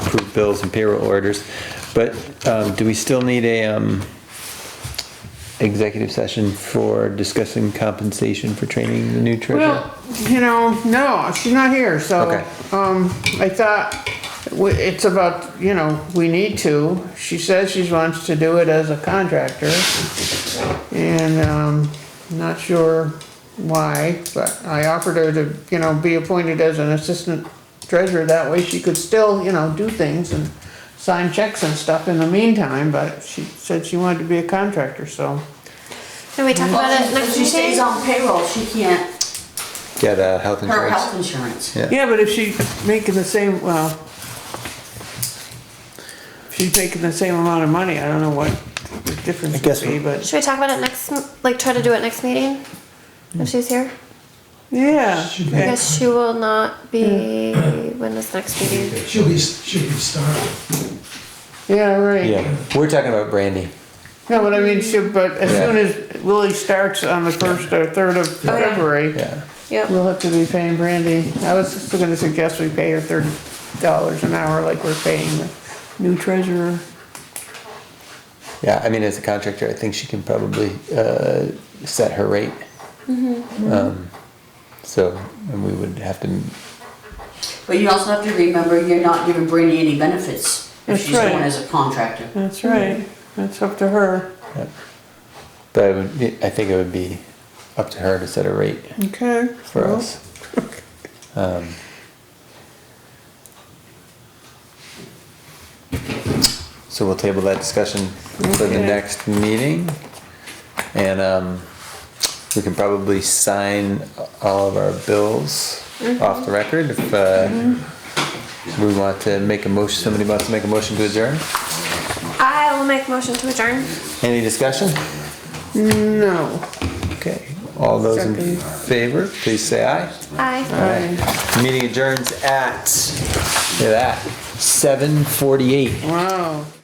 approve bills and payroll orders. But um, do we still need a um, executive session for discussing compensation for training the new treasurer? Well, you know, no, she's not here, so, Okay. um, I thought, we- it's about, you know, we need to. She says she wants to do it as a contractor, and, um, not sure why, but I offered her to, you know, be appointed as an assistant treasurer, that way she could still, you know, do things and sign checks and stuff in the meantime, but she said she wanted to be a contractor, so. Can we talk about uh, it Well, next if she stays meeting? on payroll, she can't, Yeah, the health her health insurance. insurance. Yeah. Yeah, but if she's making the same, well, if she's making the same amount of money, I don't know what the difference guess would be, but, Should we talk about it next, m- like try to do it next meeting? If she's here? yeah. I guess she will not be, when is next meeting? She'll be, she'll be starved. Yeah, right. Yeah, we're talking about Brandy. No, but I mean, she, but as Yeah. soon as Willie starts on the first or third of February, Yeah, Yep. we'll have to be paying Brandy. I was just gonna suggest we pay her thirty dollars an hour like we're paying the new treasurer. yeah. I mean, as a contractor, I think she can probably uh, set her rate. Mm-hmm. Um, So, and we would have to, But you also have to remember, you're not giving Brandy any benefits if That's she's going right. as a contractor. That's right. That's up to her. but I would, I think it would be up to her to set a rate Okay. for well, us. Um, So we'll table that discussion for the Okay. next meeting. And um, we can probably sign all of our bills Mm-hmm. off the record if uh, we want to make a motion, somebody wants to make a motion to adjourn. I will make a motion to adjourn. Any discussion? No. Okay, all those in Second. favor, please say aye. Aye. Alright, Meeting adjourns at, look at that, seven forty-eight. Wow.